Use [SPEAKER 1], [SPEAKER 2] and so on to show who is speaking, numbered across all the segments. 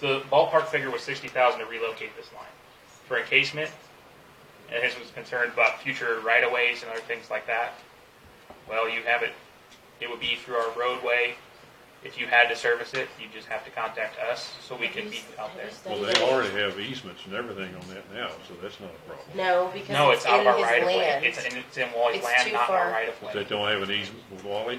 [SPEAKER 1] So the ballpark figure was sixty thousand to relocate this line for encasement, and his was concerned about future right of ways and other things like that. Well, you have it. It would be through our roadway. If you had to service it, you just have to contact us so we can be out there.
[SPEAKER 2] Well, they already have easements and everything on that now, so that's not a problem.
[SPEAKER 3] No, because
[SPEAKER 1] No, it's
[SPEAKER 3] it's
[SPEAKER 1] out of
[SPEAKER 3] in
[SPEAKER 1] our
[SPEAKER 3] his
[SPEAKER 1] right of way.
[SPEAKER 3] land.
[SPEAKER 1] It's in, it's in Wally's
[SPEAKER 3] It's
[SPEAKER 1] land,
[SPEAKER 3] too
[SPEAKER 1] not in our
[SPEAKER 3] far.
[SPEAKER 1] right of
[SPEAKER 2] If they
[SPEAKER 1] way.
[SPEAKER 2] don't have an easement with Wally,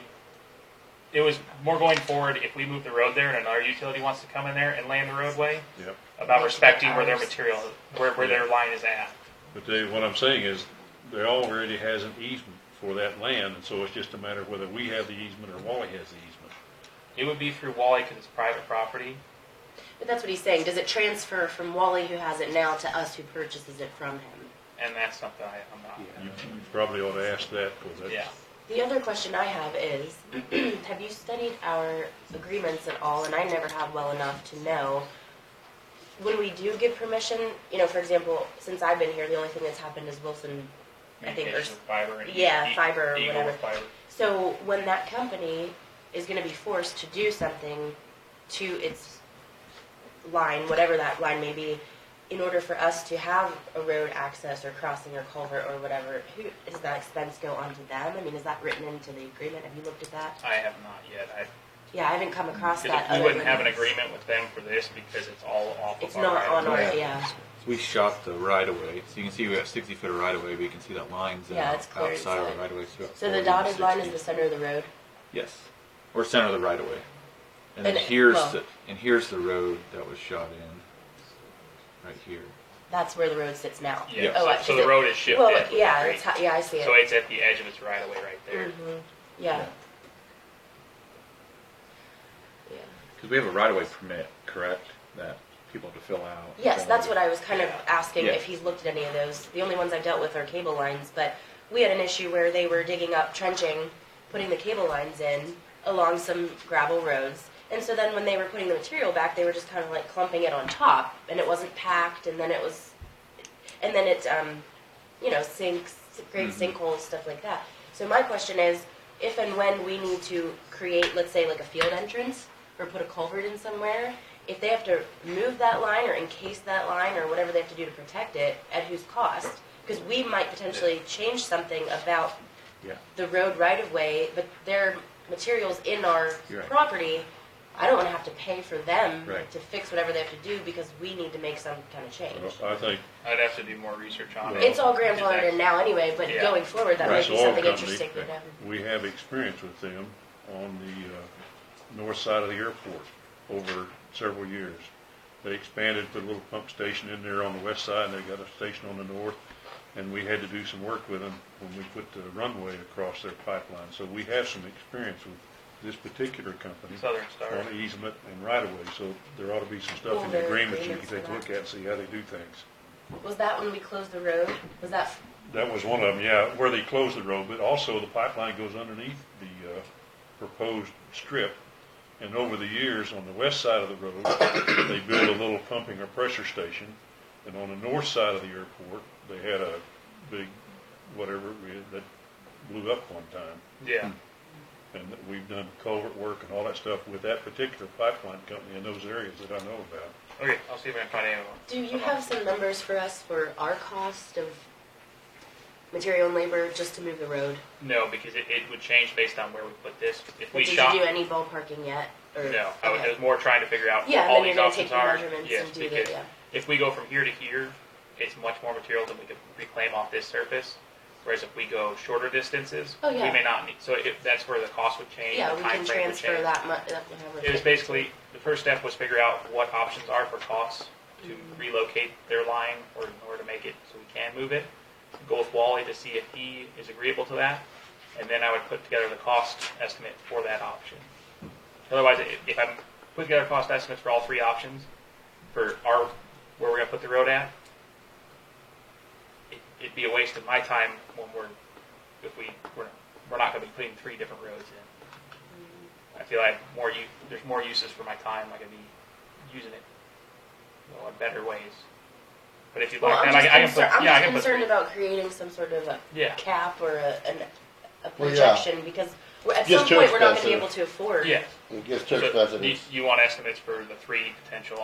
[SPEAKER 1] It was more going forward, if we move the road there and another utility wants to come in there and land the roadway,
[SPEAKER 2] yep.
[SPEAKER 1] about
[SPEAKER 3] Make it
[SPEAKER 1] respecting where their
[SPEAKER 3] ours.
[SPEAKER 1] material, where, where their line is at.
[SPEAKER 2] But they, what I'm saying is, they already has an easement for that land, and so it's just a matter of whether we have the easement or Wally has the easement.
[SPEAKER 1] It would be through Wally because it's private property.
[SPEAKER 3] But that's what he's saying. Does it transfer from Wally, who has it now, to us, who purchases it from him?
[SPEAKER 1] And that's something I, I'm not.
[SPEAKER 2] You you probably ought to ask that, because that's.
[SPEAKER 1] Yeah.
[SPEAKER 3] The other question I have is, have you studied our agreements at all? And I never have well enough to know. When we do give permission, you know, for example, since I've been here, the only thing that's happened is Wilson. I think
[SPEAKER 1] Communication
[SPEAKER 3] there's.
[SPEAKER 1] with fiber and.
[SPEAKER 3] yeah,
[SPEAKER 1] e- e-
[SPEAKER 3] fiber or
[SPEAKER 1] Eagle
[SPEAKER 3] whatever.
[SPEAKER 1] with fiber.
[SPEAKER 3] So when that company is going to be forced to do something to its line, whatever that line may be, in order for us to have a road access or crossing or culvert or whatever, who does that expense go onto them? I mean, is that written into the agreement? Have you looked at that?
[SPEAKER 1] I have not yet. I,
[SPEAKER 3] Yeah, I haven't come across
[SPEAKER 1] because
[SPEAKER 3] that.
[SPEAKER 1] we
[SPEAKER 3] other
[SPEAKER 1] wouldn't
[SPEAKER 3] than-
[SPEAKER 1] have an agreement with them for this because it's all off
[SPEAKER 3] It's
[SPEAKER 1] of our.
[SPEAKER 3] not
[SPEAKER 1] right of
[SPEAKER 3] on
[SPEAKER 1] way.
[SPEAKER 3] our
[SPEAKER 4] Yeah.
[SPEAKER 3] yeah.
[SPEAKER 4] We shot the right of way, so you can see we got sixty foot of right of way, but you can see that line's
[SPEAKER 3] Yeah,
[SPEAKER 4] out-
[SPEAKER 3] it's clear
[SPEAKER 4] outside of
[SPEAKER 3] inside.
[SPEAKER 4] the right of way. So, about
[SPEAKER 3] So the
[SPEAKER 4] 40,
[SPEAKER 3] dotted line is
[SPEAKER 4] 60.
[SPEAKER 3] the center of the road.
[SPEAKER 4] Yes, or center of the right of way, and then
[SPEAKER 3] And it-
[SPEAKER 4] here's
[SPEAKER 3] well-
[SPEAKER 4] the and here's the road that was shot in, right here.
[SPEAKER 3] That's where the road sits now.
[SPEAKER 1] Yeah,
[SPEAKER 3] Oh,
[SPEAKER 1] so,
[SPEAKER 3] I-
[SPEAKER 1] so
[SPEAKER 3] is
[SPEAKER 1] the
[SPEAKER 3] it-
[SPEAKER 1] road is shifted.
[SPEAKER 3] Well, yeah,
[SPEAKER 1] right?
[SPEAKER 3] that's how, yeah, I see it.
[SPEAKER 1] So it's at the edge of its right of way right there.
[SPEAKER 3] Mhm. Yeah. Yeah.
[SPEAKER 4] Because we have a right of way permit, correct? That people have to fill out.
[SPEAKER 3] Yes, that's what I was kind of asking
[SPEAKER 4] Yeah.
[SPEAKER 3] if he's looked at any of those. The only ones I've dealt with are cable lines, but we had an issue where they were digging up, trenching, putting the cable lines in along some gravel roads. And so then when they were putting the material back, they were just kind of like clumping it on top, and it wasn't packed, and then it was, and then it, um, you know, sinks, great
[SPEAKER 4] Mm-hmm.
[SPEAKER 3] sinkholes, stuff like that. So my question is, if and when we need to create, let's say, like a field entrance or put a culvert in somewhere, if they have to move that line or encase that line or whatever they have to do to protect it, at whose cost? Because we might potentially change something about
[SPEAKER 4] Yeah.
[SPEAKER 3] the road right of way, but their materials in our
[SPEAKER 4] You're right.
[SPEAKER 3] property, I don't want to have to pay for them
[SPEAKER 4] Right.
[SPEAKER 3] to fix whatever they have to do because we need to make some kind of change.
[SPEAKER 2] Well, I think
[SPEAKER 1] I'd have to do more research on it.
[SPEAKER 3] It's all grandfathered in now anyway, but
[SPEAKER 1] Yeah.
[SPEAKER 3] going forward, that might
[SPEAKER 2] Rush
[SPEAKER 3] be
[SPEAKER 2] Oil
[SPEAKER 3] something
[SPEAKER 2] Company.
[SPEAKER 3] interesting for them.
[SPEAKER 2] we have experience with them on the, uh, north side of the airport over several years. They expanded, put a little pump station in there on the west side, and they got a station on the north, and we had to do some work with them when we put the runway across their pipeline. So we have some experience with this particular company.
[SPEAKER 1] Southern Star.
[SPEAKER 2] On easement and right of way, so there ought to be some
[SPEAKER 3] Well,
[SPEAKER 2] stuff in
[SPEAKER 3] there
[SPEAKER 2] the
[SPEAKER 3] are
[SPEAKER 2] agreement you can
[SPEAKER 3] agreements for
[SPEAKER 2] take a
[SPEAKER 3] that.
[SPEAKER 2] look at and see how they do things.
[SPEAKER 3] Was that when we closed the road? Was that,
[SPEAKER 2] That was one of them, yeah, where they closed the road, but also the pipeline goes underneath the, uh, proposed strip. And over the years, on the west side of the road, they built a little pumping or pressure station. And on the north side of the airport, they had a big, whatever, it is that blew up one time.
[SPEAKER 1] Yeah.
[SPEAKER 2] And we've done culvert work and all that stuff with that particular pipeline company in those areas that I know about.
[SPEAKER 1] Okay, I'll see if I can find anyone.
[SPEAKER 3] do you
[SPEAKER 1] Uh-huh.
[SPEAKER 3] have some numbers for us for our cost of material and labor just to move the road?
[SPEAKER 1] No, because it, it would change based on where we put this. If we
[SPEAKER 3] Did you
[SPEAKER 1] shot,
[SPEAKER 3] do any ballparking yet? Or-
[SPEAKER 1] no, I was,
[SPEAKER 3] okay.
[SPEAKER 1] I was more trying to figure out
[SPEAKER 3] Yeah,
[SPEAKER 1] what
[SPEAKER 3] and
[SPEAKER 1] all
[SPEAKER 3] then
[SPEAKER 1] these
[SPEAKER 3] you're gonna
[SPEAKER 1] options
[SPEAKER 3] take your
[SPEAKER 1] are.
[SPEAKER 3] measurements
[SPEAKER 1] yes,
[SPEAKER 3] and do the-
[SPEAKER 1] because
[SPEAKER 3] yeah.
[SPEAKER 1] if we go from here to here, it's much more material than we could reclaim off this surface. Whereas if we go shorter distances,
[SPEAKER 3] Oh,
[SPEAKER 1] we
[SPEAKER 3] yeah.
[SPEAKER 1] may not need. So if that's where the cost would change.
[SPEAKER 3] Yeah,
[SPEAKER 1] the
[SPEAKER 3] we
[SPEAKER 1] time
[SPEAKER 3] can
[SPEAKER 1] frame would
[SPEAKER 3] transfer
[SPEAKER 1] change.
[SPEAKER 3] that mu- that whatever.
[SPEAKER 1] It was basically the first step was figure out what options are for costs to relocate their line or in order to make it so we can move it. Go with Wally to see if he is agreeable to that, and then I would put together the cost estimate for that option. Otherwise, i- if I'm put together cost estimates for all three options, for our where we're gonna put the road at, it- it'd be a waste of my time when we're if we we're, we're not gonna be putting three different roads in. I feel like more u- there's more uses for my time. I could be using it you know, in better ways. But if you
[SPEAKER 3] Well,
[SPEAKER 1] like
[SPEAKER 3] I'm
[SPEAKER 1] that, I, I
[SPEAKER 3] just
[SPEAKER 1] can
[SPEAKER 3] concern-
[SPEAKER 1] put yeah, I
[SPEAKER 3] I'm
[SPEAKER 1] can
[SPEAKER 3] just
[SPEAKER 1] put
[SPEAKER 3] concerned about creating some sort of a
[SPEAKER 1] yeah
[SPEAKER 3] cap or a, an, a
[SPEAKER 5] Well, yeah.
[SPEAKER 3] projection because we're- at
[SPEAKER 5] Gets
[SPEAKER 3] some
[SPEAKER 5] too
[SPEAKER 3] point, we're not gonna be
[SPEAKER 5] expensive.
[SPEAKER 3] able to afford.
[SPEAKER 1] yeah.
[SPEAKER 5] It gets too
[SPEAKER 1] So
[SPEAKER 5] expensive.
[SPEAKER 1] you, you want estimates for the three potential